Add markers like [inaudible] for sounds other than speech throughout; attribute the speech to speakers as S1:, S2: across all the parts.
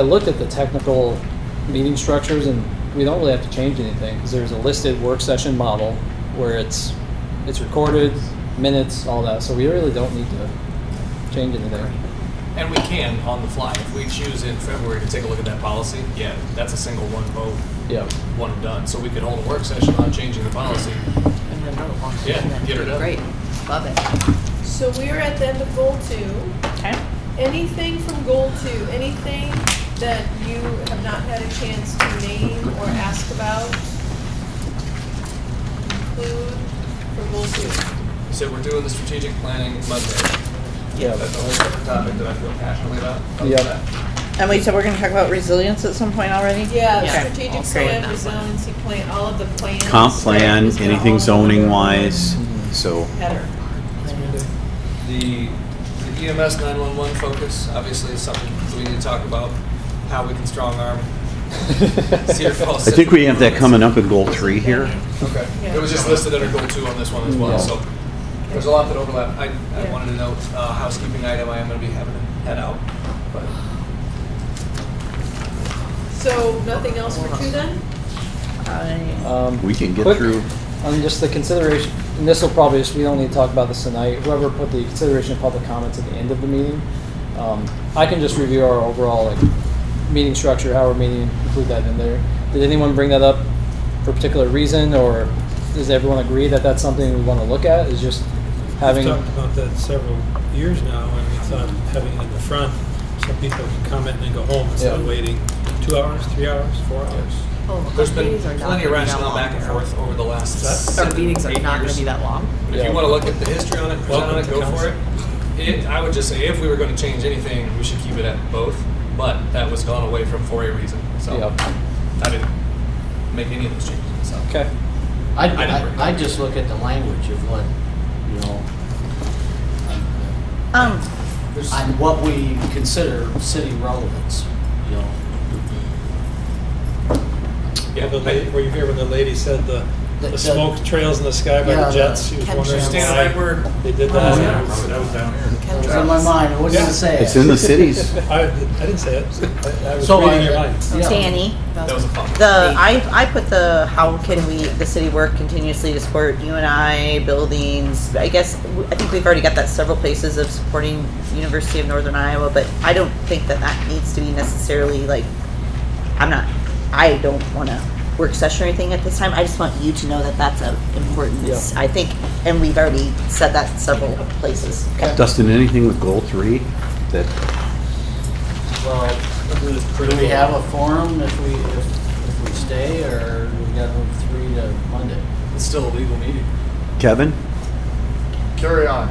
S1: I looked at the technical meeting structures and we don't really have to change anything because there's a listed work session model where it's, it's recorded, minutes, all that. So we really don't need to change anything.
S2: And we can on the fly. If we choose in February to take a look at that policy, yeah, that's a single one vote,
S1: Yeah.
S2: one and done. So we could hold a work session on changing the policy.
S3: And then vote on it.
S2: Yeah, get it done.
S3: Great, love it.
S4: So we're at the end of goal two.
S3: Okay.
S4: Anything from goal two, anything that you have not had a chance to name or ask about, include for goal two.
S2: So we're doing the strategic planning Monday. That's a
S1: Yeah.
S2: whole separate topic that I feel passionately about. Other
S1: Yeah.
S2: than that,
S5: And we said we're gonna talk about resilience at some point already?
S4: Yeah,
S3: Yeah.
S4: strategic
S3: Okay.
S4: plan, resiliency plan, all of the plans.
S6: Comp plan,
S4: Just kinda all
S6: anything
S4: of
S6: zoning
S4: them.
S6: wise, so.
S4: Header.
S2: The the E EMS 911 focus, obviously, is something that we need to talk about, how we can strong arm. Cedar
S1: [laughs]
S2: Falls
S6: I think we
S2: Civic
S6: have that
S2: Improvements.
S6: coming up in goal three here.
S2: Okay,
S4: Yeah.
S2: it was just listed under goal two on this one as well,
S1: Yeah.
S2: so there's a lot that overlap. I, I
S4: Yeah.
S2: wanted to note, uh, housekeeping item, I am gonna be having to head out, but
S4: So nothing else for two then?
S5: I-
S1: Um,
S6: We can get
S1: quick-
S6: through,
S1: On just the consideration, and this will probably, just we don't need to talk about this tonight, whoever put the consideration of public comments at the end of the meeting, um, I can just review our overall, like, meeting structure, how we're meeting, include that in there. Did anyone bring that up for a particular reason, or does everyone agree that that's something we wanna look at, is just having,
S7: We've talked about that several years now, and we thought having it in the front, so people can comment and then go home instead of
S1: Yeah.
S7: waiting two hours, three hours, four hours.
S3: Oh,
S2: there's been
S3: meetings are not
S2: plenty
S3: gonna
S2: of
S3: be that
S2: rationale
S3: long.
S2: back and forth over the last
S3: Our
S2: seven,
S3: meetings are
S2: eight
S3: not gonna
S2: years.
S3: be that long.
S2: But If
S1: Yeah.
S2: you wanna look at the history on it, present on
S7: Welcome
S2: it,
S7: to
S2: go for
S7: council.
S2: it. It, I would just say, if we were gonna change anything, we should keep it at both, but that was gone away from for a reason, so
S1: yeah,
S2: I didn't make any of those changes, so.
S1: okay,
S8: I,
S2: I didn't bring it
S8: I, I
S2: up.
S8: just look at the language of what, you know,
S5: Um,
S2: There's-
S8: on what we consider city relevance, you know.
S2: Yeah,
S7: The
S2: I-
S7: la- Were you here when the lady said the,
S8: The-
S7: the
S8: the-
S7: smoke trails in the sky by
S8: Yeah,
S7: the
S8: the
S7: jets? She was wondering
S2: Stand on that word.
S7: why they did
S2: Oh,
S7: that.
S2: yeah.
S7: I was- I was down here.
S8: It was in my mind, I wasn't
S7: Yeah.
S8: gonna say it.
S6: it's in the cities.
S7: I, I didn't say it, I I was
S8: So
S7: reading
S8: I-
S7: your mind.
S8: Yeah.
S5: Danny,
S2: That was a fun. one.
S5: the, I, I put the, how can we, the city work continuously to support you and I, buildings, I guess, w- I think we've already got that several places of supporting University of Northern Iowa, but I don't think that that needs to be necessarily like, I'm not, I don't wanna work session or anything at this time, I just want you to know that that's a important,
S1: Yeah.
S5: I think, and we've already said that several places.
S6: Dustin, anything with goal three that,
S8: Well, do we have a forum if we, if, if we stay, or we gotta move three to Monday?
S2: It's still a legal meeting.
S6: Kevin?
S8: Carry on.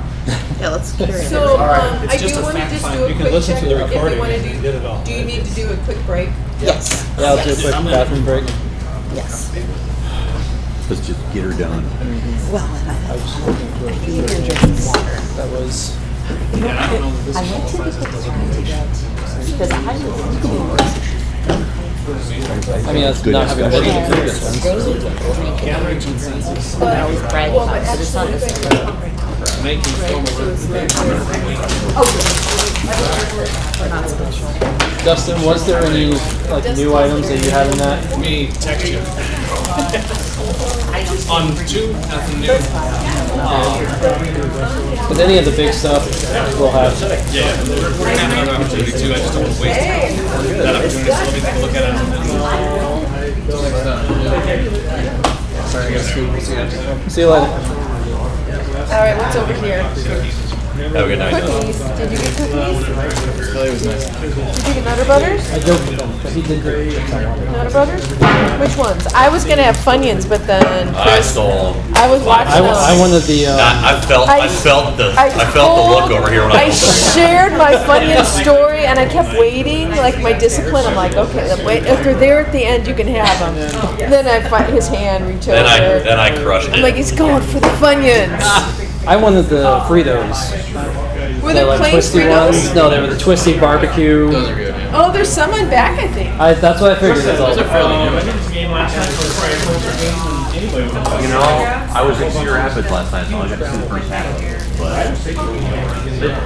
S5: Yeah, let's carry it.
S4: So, um,
S8: All right,
S4: I
S2: it's just
S4: do
S2: a
S4: wanna
S2: fact
S4: just
S2: find.
S4: do a
S7: You can
S4: quick
S7: listen
S4: check
S7: to the
S4: if we
S7: recording
S4: wanna
S7: and you did it all.
S4: do, do you need to do a quick break?
S5: Yes,
S1: yeah, I'll do a quick
S8: I'm gonna-
S1: bathroom break.
S5: yes.
S6: Let's just get her done.
S5: Well, and
S1: I
S5: I,
S1: was just looking through it.
S3: You're drinking water.
S1: That was,
S2: And I don't know that this qualifies as deliberation.
S5: because I
S1: I mean, that's
S6: Good
S1: not having.
S6: discussion.
S1: worked through this one.
S4: But,
S3: was bragging
S4: well,
S3: about
S4: but
S3: it, but it's not
S4: actually,
S3: as
S4: we're gonna-
S2: Making formal
S1: Dustin, was there any like new items that you had in that?
S2: me
S3: [laughs]
S2: text you. On two, nothing new. Uh,
S1: Um, With any of the big stuff, we'll have.
S2: yeah, we're we're gonna have another opportunity too. I just don't want to waste that opportunity. So let me take a look at it. and then- Next time, yeah. Sorry, I gotta scoot. We'll see you after.
S1: See you later.
S4: All right, what's over here?
S2: Have a good night.
S4: Cookies, did you get cookies? Did you get Nutter Butters?
S1: I joked with him, but he did great.
S4: Nutter Butters? Which ones? I was gonna have Funyuns, but then
S9: I stole.
S4: I was watching
S1: I,
S4: them.
S1: wa- I wanted the. Uh,
S9: I, I felt. I,
S4: I-
S9: felt the.
S4: I
S9: I, felt the look
S4: told-
S9: over here when I.
S4: I shared my Funyun story and I kept waiting, like my discipline. I'm like, okay, then wait, if they're there at the end, you can have them. Then I find his hand reach
S9: then I.
S4: over.
S9: Then I crushed it.
S4: I'm like, he's going for the Funyuns.
S1: I wanted the Fritos.
S4: Were
S1: Ah. They're
S4: there
S1: like
S4: plain
S1: twisty ones.
S4: Fritos?
S1: No, they were the twisty barbecue.
S4: Oh, there's some on back, I think.
S1: I, that's what I figured. It's like,
S9: you know, I was in Cedar Rapids last night, so I got to see the first half. of it, But